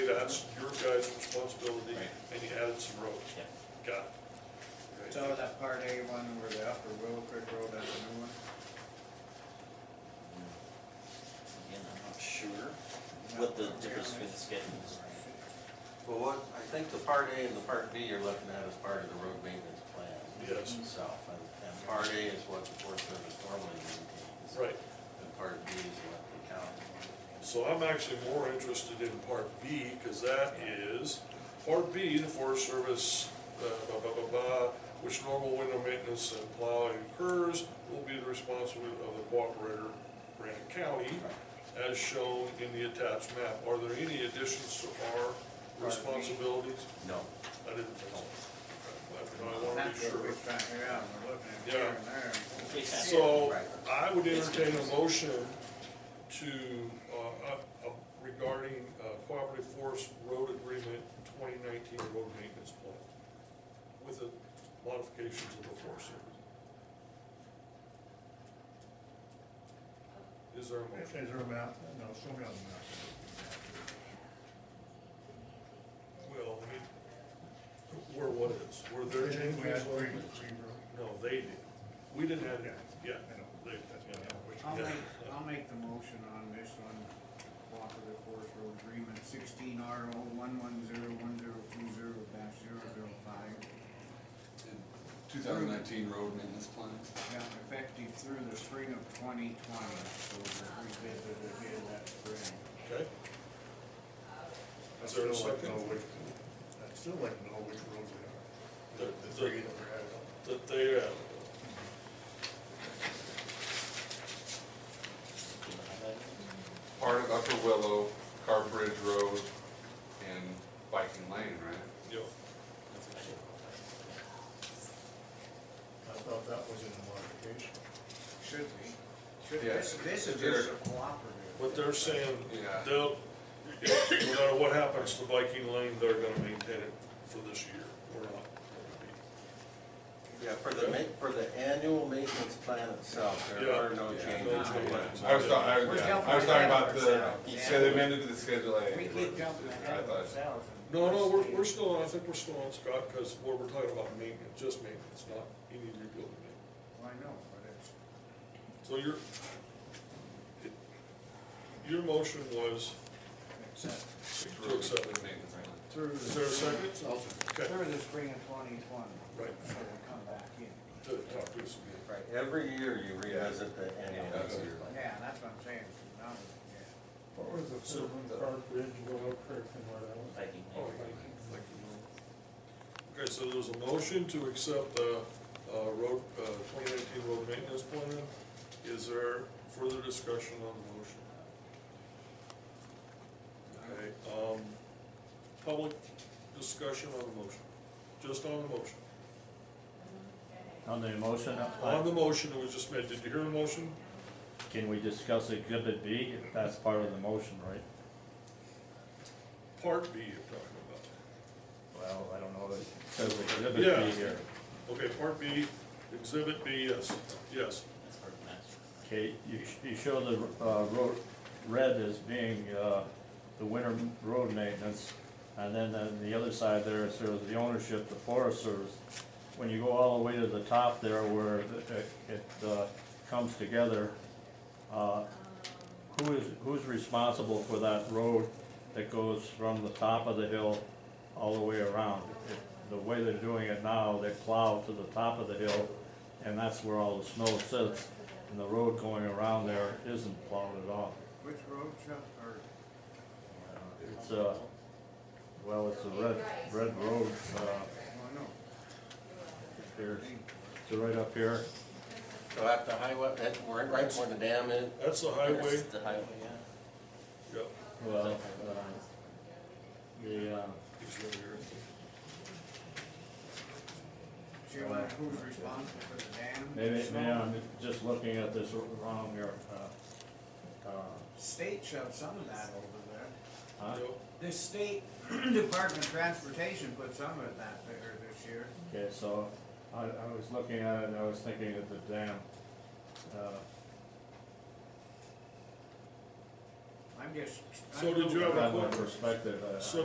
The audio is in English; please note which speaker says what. Speaker 1: that's your guys' responsibility,
Speaker 2: Right.
Speaker 1: and you added some roads.
Speaker 2: Yeah.
Speaker 1: Got it.
Speaker 3: So that part A one where the upper Wilfred Road, that's a new one?
Speaker 2: Again, I'm not sure what the difference between the schedules.
Speaker 4: Well, what, I think the part A and the part B you're looking at is part of the road maintenance plan.
Speaker 1: Yes.
Speaker 4: Itself, and, and part A is what the Forest Service normally maintains.
Speaker 1: Right,
Speaker 4: And part B is what the county maintains.
Speaker 1: so I'm actually more interested in part B, because that is, part B, the Forest Service, uh, blah, blah, blah, blah, which normal window maintenance and plowing occurs will be the responsibility of the cooperator, Grant County, as shown in the attached map. Are there any additions to our responsibilities?
Speaker 4: No.
Speaker 1: I didn't think so. I- I want to be
Speaker 3: That's what
Speaker 1: sure.
Speaker 3: we're trying to figure out, we're looking at
Speaker 1: Yeah.
Speaker 3: here and there.
Speaker 2: Okay,
Speaker 1: So I would entertain a motion to, uh, uh, regarding uh, Cooperative Forest Road Agreement twenty nineteen road maintenance plan with the modifications of the Forest Service. Is there a motion?
Speaker 5: Is there a map? No, somebody on the
Speaker 1: Well, I mean, where what is, were there
Speaker 5: map.
Speaker 1: changes?
Speaker 5: We had three, three roads.
Speaker 1: No, they did. We didn't have,
Speaker 5: Yeah.
Speaker 1: yeah,
Speaker 5: I know.
Speaker 1: they,
Speaker 5: That's
Speaker 1: yeah.
Speaker 5: what I know, which
Speaker 3: I'll
Speaker 1: Yeah.
Speaker 3: make, I'll make the motion on this one, cooperative forest road agreement sixteen R O one one zero one zero two zero dash zero zero five.
Speaker 6: 2019 road maintenance plan.
Speaker 3: Yeah, effective through the spring of twenty twenty, so we'll revisit it again that spring.
Speaker 1: Okay,
Speaker 5: I'd
Speaker 1: Is there a
Speaker 5: still like to
Speaker 1: second?
Speaker 5: know which- I'd still like to know which roads they are.
Speaker 1: The- the-
Speaker 5: three that were added on.
Speaker 1: that they, uh,
Speaker 6: Part of Upper Willow, Carbridge Road, and Viking Lane, right?
Speaker 1: you know,
Speaker 5: I thought that was in the modification.
Speaker 3: Should be. Should,
Speaker 6: Yeah.
Speaker 3: this, this is
Speaker 6: They're-
Speaker 3: just a cooperative.
Speaker 1: what they're saying,
Speaker 6: Yeah.
Speaker 1: they'll, no matter what happens to Viking Lane, they're gonna maintain it for this year, or not.
Speaker 4: Yeah, for the ma, for the annual maintenance plan itself, there
Speaker 1: Yeah.
Speaker 4: are no
Speaker 1: Yeah.
Speaker 4: changes.
Speaker 1: No changes.
Speaker 6: I was talking, I
Speaker 3: We're
Speaker 6: was, yeah,
Speaker 3: jumping
Speaker 6: I was talking
Speaker 3: ahead of
Speaker 6: about the,
Speaker 3: ourselves.
Speaker 6: you said they amended to the Schedule A.
Speaker 3: We keep jumping ahead
Speaker 6: I
Speaker 3: of
Speaker 6: thought-
Speaker 3: ourselves. and-
Speaker 1: No, no, we're, we're still, on- I think we're still on Scott, because what we're talking about maintenance, just maintenance, not any rebuilding. it.
Speaker 3: Well, I know, but it's,
Speaker 1: So your, it- your motion was,
Speaker 3: except
Speaker 1: To accept it.
Speaker 6: Maintenance plan.
Speaker 3: through.
Speaker 1: Is there a second? Okay.
Speaker 3: Through the spring of twenty twenty.
Speaker 1: Right.
Speaker 3: So we'll come back in.
Speaker 1: to talk to us again.
Speaker 4: Right, every year you revisit the annual
Speaker 6: Yeah.
Speaker 4: maintenance plan.
Speaker 3: Yeah, that's what I'm saying, it's not, yeah.
Speaker 7: What was the
Speaker 1: So-
Speaker 7: third one, Park Ridge, Willow Creek, and what else?
Speaker 2: Viking
Speaker 1: Oh,
Speaker 2: Lane.
Speaker 1: Thank you. Okay, so there's a motion to accept the uh, road, twenty nineteen road maintenance plan. Is there further discussion on the motion? Okay, um, public discussion on the motion, just on the motion.
Speaker 8: On the motion,
Speaker 1: On
Speaker 8: uh,
Speaker 1: the motion that was just made, did you hear the motion?
Speaker 8: can we discuss exhibit B? That's part of the motion, right?
Speaker 1: Part B you're talking
Speaker 8: Well, I don't know, that it says exhibit
Speaker 1: Yeah.
Speaker 8: B here.
Speaker 1: about. Okay, part B, exhibit B, yes, yes.
Speaker 2: That's part of master.
Speaker 8: Okay, you, sh- you show the, uh, road, red as being, uh, the winter road maintenance, and then on the other side there, it says the ownership, the Forest Service. When you go all the way to the top there where it, it, uh, comes together, uh, who is, who's responsible for that road that goes from the top of the hill all the way around? It- The way they're doing it now, they plow to the top of the hill, and that's where all the snow sits, and the road going around there isn't plowed at all.
Speaker 3: Which road, Chuck, or?
Speaker 8: It's, uh, well, it's a red, red road, uh,
Speaker 3: Well, no,
Speaker 8: here, it's right up here.
Speaker 4: So at the highway, that, right, right where the dam is.
Speaker 1: That's the highway,
Speaker 4: The highway, yeah.
Speaker 1: yep.
Speaker 8: Well, uh, the, uh,
Speaker 1: It's right here.
Speaker 3: she was, who's responsible for the dam?
Speaker 8: maybe,
Speaker 3: Snow?
Speaker 8: maybe I'm just looking at this wrong here, uh, uh,
Speaker 3: State shoved some of that over there.
Speaker 8: huh?
Speaker 3: The state Department of Transportation put some of that there this year.
Speaker 8: Okay, so I, I was looking at it and I was thinking of the dam. Uh,
Speaker 3: I'm just.
Speaker 1: So did you have a
Speaker 8: From my
Speaker 1: question?
Speaker 8: perspective, uh, I- I-
Speaker 1: So